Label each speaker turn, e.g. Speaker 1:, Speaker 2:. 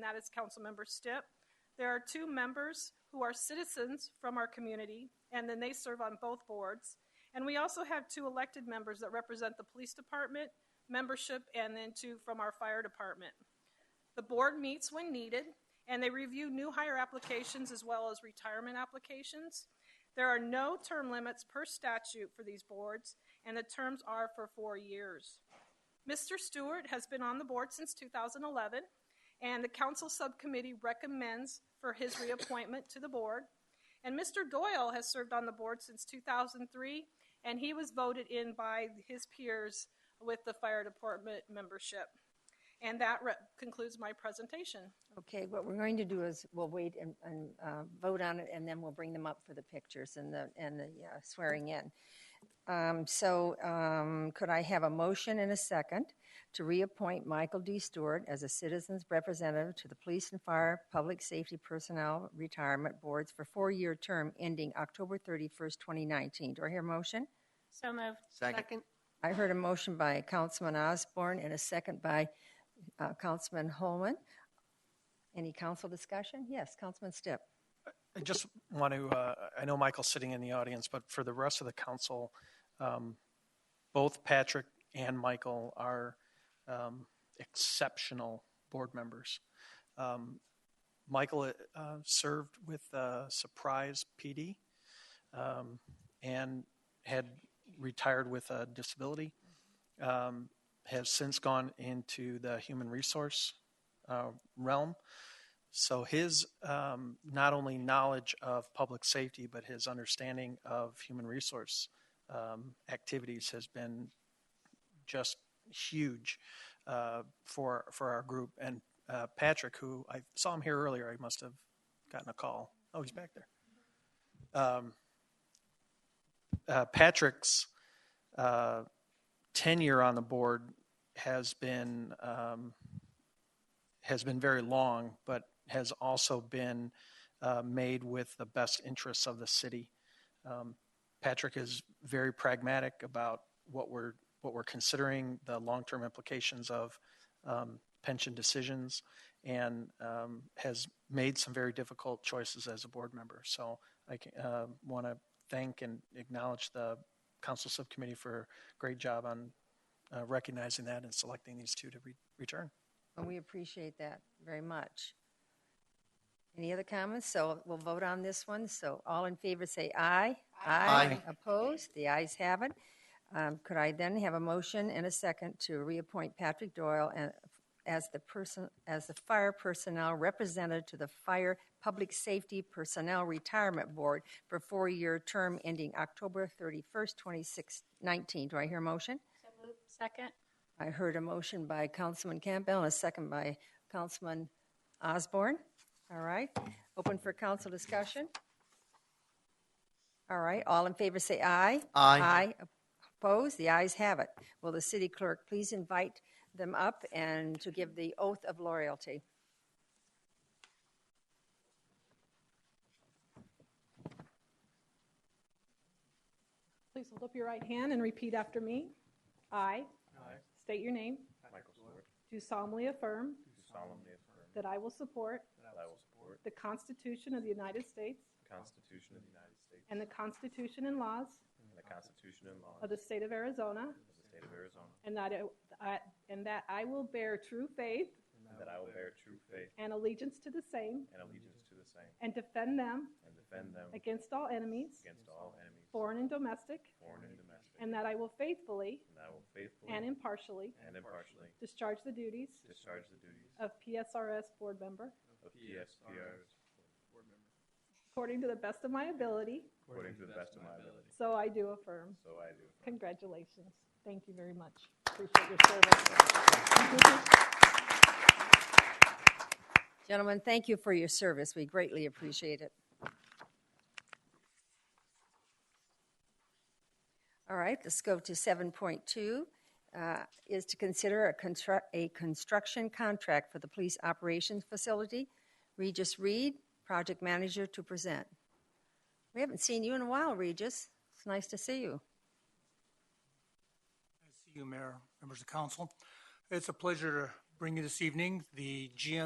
Speaker 1: that is Councilmember Stipp. There are two members who are citizens from our community, and then they serve on both boards. And we also have two elected members that represent the police department membership and then two from our fire department. The board meets when needed, and they review new hire applications as well as retirement applications. There are no term limits per statute for these boards, and the terms are for four years. Mr. Stewart has been on the board since 2011, and the council subcommittee recommends for his reappointment to the board. And Mr. Doyle has served on the board since 2003, and he was voted in by his peers with the fire department membership. And that re- concludes my presentation.
Speaker 2: Okay, what we're going to do is we'll wait and, and uh, vote on it, and then we'll bring them up for the pictures and the, and the uh, swearing in. Um, So um, could I have a motion and a second to reappoint Michael D. Stewart as a citizen's representative to the Police and Fire Public Safety Personnel Retirement Boards for four-year term ending October 31st, 2019? Do I hear a motion?
Speaker 3: So moved.
Speaker 4: Second.
Speaker 2: I heard a motion by Councilman Osborne and a second by uh, Councilman Holman. Any council discussion? Yes, Councilman Stipp.
Speaker 5: I just want to, uh, I know Michael's sitting in the audience, but for the rest of the council, um, both Patrick and Michael are um, exceptional board members. Um, Michael uh, served with uh, Surprise PD um, and had retired with a disability, um, has since gone into the human resource uh, realm. So his um, not only knowledge of public safety, but his understanding of human resource um, activities has been just huge uh, for for our group. And uh, Patrick, who I saw him here earlier, I must have gotten a call. Oh, he's back there. Um, uh, Patrick's uh, tenure on the board has been. Um, has been very long, but has also been uh, made with the best interests of the city. Um, Patrick is very pragmatic about what we're what we're considering the long-term implications of um, pension decisions, and um, has made some very difficult choices as a board member. So I can, uh, want to thank and acknowledge the council subcommittee for a great job on uh, recognizing that and selecting these two to re- return.
Speaker 2: And we appreciate that very much. Any other comments? So we'll vote on this one. So all in favor say aye.
Speaker 4: Aye.
Speaker 2: Opposed? The ayes have it. Um, Could I then have a motion and a second to reappoint Patrick Doyle and- as the person, as the fire personnel representative to the Fire Public Safety Personnel Retirement Board for four-year term ending October 31st, 2019? Do I hear a motion?
Speaker 3: So moved. Second.
Speaker 2: I heard a motion by Councilman Campbell and a second by Councilman Osborne. All right, open for council discussion. All right, all in favor say aye.
Speaker 4: Aye.
Speaker 2: Aye, opposed, the ayes have it. Will the city clerk please invite them up and to give the oath of loyalty?
Speaker 1: Please hold up your right hand and repeat after me. I. State your name.
Speaker 6: Michael Stewart,
Speaker 1: Do solemnly affirm
Speaker 6: do solemnly affirm
Speaker 1: that I will support
Speaker 6: that I will support
Speaker 1: the Constitution of the United States
Speaker 6: the Constitution of the United States
Speaker 1: and the Constitution and laws
Speaker 6: and the Constitution and laws
Speaker 1: of the state of Arizona,
Speaker 6: of the state of Arizona,
Speaker 1: and that I, and that I will bear true faith
Speaker 6: and that I will bear true faith
Speaker 1: and allegiance to the same
Speaker 6: and allegiance to the same,
Speaker 1: and defend them
Speaker 6: and defend them
Speaker 1: against all enemies,
Speaker 6: against all enemies,
Speaker 1: foreign and domestic,
Speaker 6: foreign and domestic,
Speaker 1: and that I will faithfully
Speaker 6: and that I will faithfully
Speaker 1: and impartially
Speaker 6: and impartially
Speaker 1: discharge the duties
Speaker 6: discharge the duties
Speaker 1: of PSRS board member
Speaker 6: of PSPRs
Speaker 1: according to the best of my ability.
Speaker 6: according to the best of my ability.
Speaker 1: So I do affirm.
Speaker 6: So I do.
Speaker 1: Congratulations. Thank you very much. Appreciate your service.
Speaker 2: Gentlemen, thank you for your service. We greatly appreciate it. All right, let's go to 7.2, uh, is to consider a constru- a construction contract for the police operations facility. Regis Reed, project manager, to present. We haven't seen you in a while, Regis. It's nice to see you.
Speaker 7: Thank you, Mayor, members of council. It's a pleasure to bring you this evening the GM